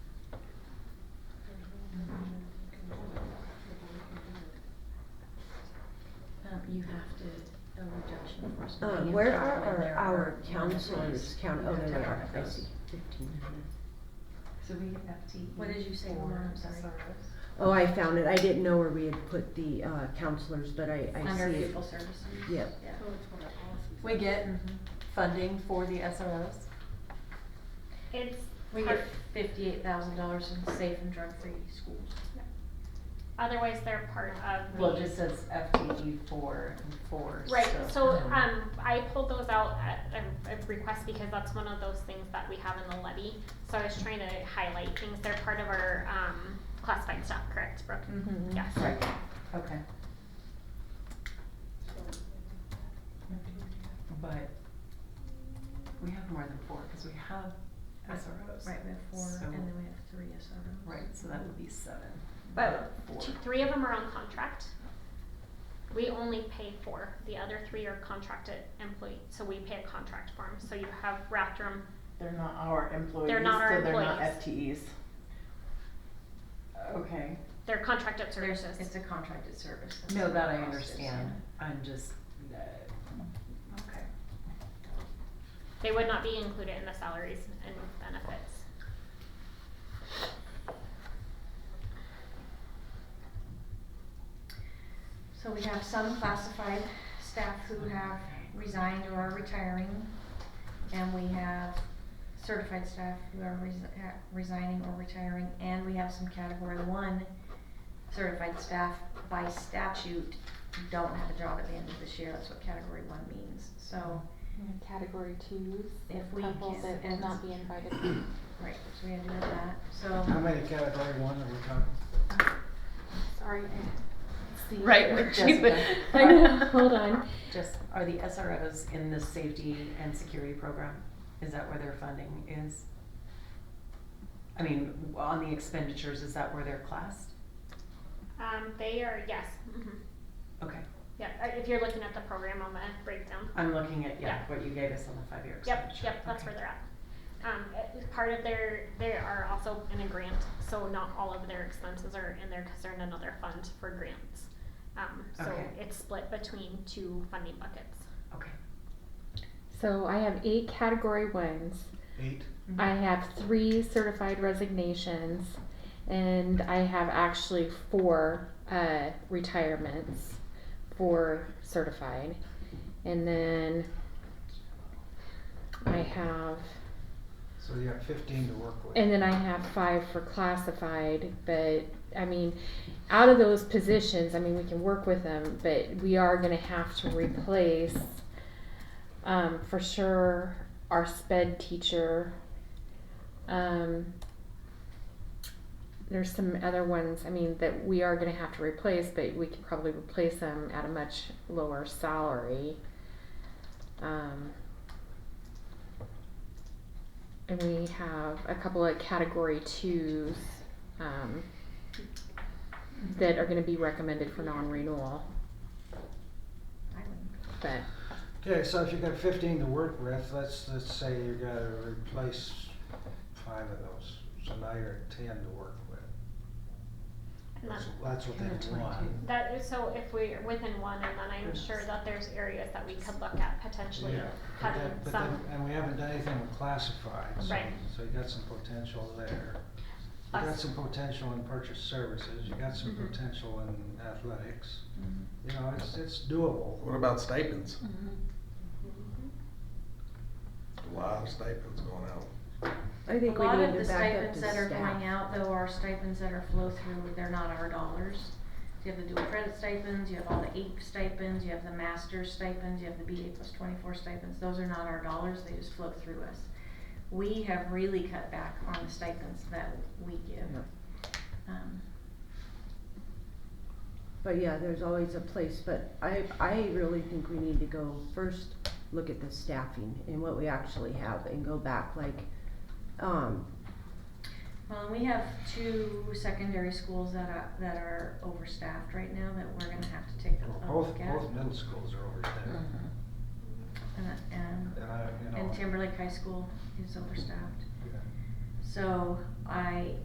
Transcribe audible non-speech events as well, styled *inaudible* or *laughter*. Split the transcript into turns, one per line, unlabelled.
Um,
question.
Uh, where are our, our counselors, count, oh, there they are, I see, fifteen hundred.
So we have FTE.
What did you say,
for
Lamar? I'm sorry.
SROs.
Oh, I found it, I didn't know where we had put the, uh, counselors, but I, I see
Under
it.
people services?
Yep.
Yeah.
We get funding for the SROs.
It's
We
hard-
get fifty-eight thousand dollars in safe and drug-free schools.
otherwise they're part of
Well,
the-
it just says FTE four and four, so.
Right, so, um, I pulled those out at a, a request because that's one of those things that we have in the levy. So I was trying to highlight things, they're part of our, um, classified stuff, correct, Brooke?
Mhm.
Yes.
Right, okay. But we have more than four, cause we have SROs.
Right, we have four,
So-
and then we have three SROs.
Right, so that would be seven.
But
not four.
two, three of them are on contract. We only pay four, the other three are contracted employee, so we pay a contract for 'em. So you have Raptor,
They're not our employees, so
They're not our
they're not FTEs.
employees.
Okay,
they're contracted
There's-
services.
It's a contracted service. that's
No,
what
that
the
I
cost is,
understand,
yeah.
I'm just, uh, okay.
They would not be included in the salaries and benefits.
So we have some classified staff who have resigned or are retiring, and we have certified staff who are resi- uh, resigning or retiring, and we have some category one certified staff by statute don't have a job at the end of this year, that's what category one means, so,
And Category twos,
If we can-
couples that will
and-
not be invited. *coughs* Well,
right, so we had to do that, so.
How many category one are we talking?
Sorry. See,
Right,
here, *laughs*
we're
*laughs*
Jessica.
cheaping.
I know, *laughs* hold on.
Just, are the SROs in the safety and security program? Is that where their funding is? I mean, on the expenditures, is that where they're classed?
Um, they are, yes, mhm.
Okay,
Yeah, uh, if you're looking at the program on the breakdown.
I'm looking at, yeah,
Yeah.
what you gave us on the five-year
Yep,
expenditure.
yep, that's
Okay.
where they're at. Um, it- part of their, they are also in a grant, so not all of their expenses are in there because they're in another fund for grants. Um, so
Okay.
it's split between two funding buckets.
Okay.
So I have eight category ones.
Eight?
I have three certified resignations, and I have actually four uh, retirements for certified. And then I have,
So you have fifteen to work with.
and then I have five for classified, but I mean, out of those positions, I mean, we can work with them, but we are gonna have to replace, um, for sure, our sped teacher. Um, there's some other ones, I mean, that we are gonna have to replace, but we could probably replace them at a much lower salary. Um, and we have a couple of category twos, um, that are gonna be recommended for non-renewal,
I would-
but,
Okay, so if you got fifteen to work with, let's, let's say you gotta replace five of those. So now you're at ten to work with.
And
That's,
that,
that's what
Ten to
they want.
22.
that is, so if we're within one, and then I'm sure that there's areas that we could look at potentially
Yeah, but
having
that, but
some.
then, and we haven't done anything with classified, so,
Right.
so you got some potential there. You got
Us.
some potential in purchase services, you got some
Mhm.
potential in athletics.
Mm-hmm.
You know, it's, it's doable.
What about stipends? A lot of stipends going out.
I think
A
we
lot
need
of
to
the
back up
stipends
to
that are going
staff.
out though are stipends that are flow through, they're not our dollars. You have the dual credit stipends, you have all the APE stipends, you have the master's stipends, you have the BA plus twenty-four stipends, those are not our dollars, they just flow through us. We have really cut back on the stipends that we give. Um,
But yeah, there's always a place, but I, I really think we need to go first, look at the staffing and what we actually have and go back like, um,
Well, and we have two secondary schools that are, that are overstaffed right now that we're gonna have to take
Well,
a
Both,
look at.
both middle schools are over there.
Mhm.
And, Mm-hmm. and,
And I, you know.
and Timberlake High School is overstaffed.
yeah.
So I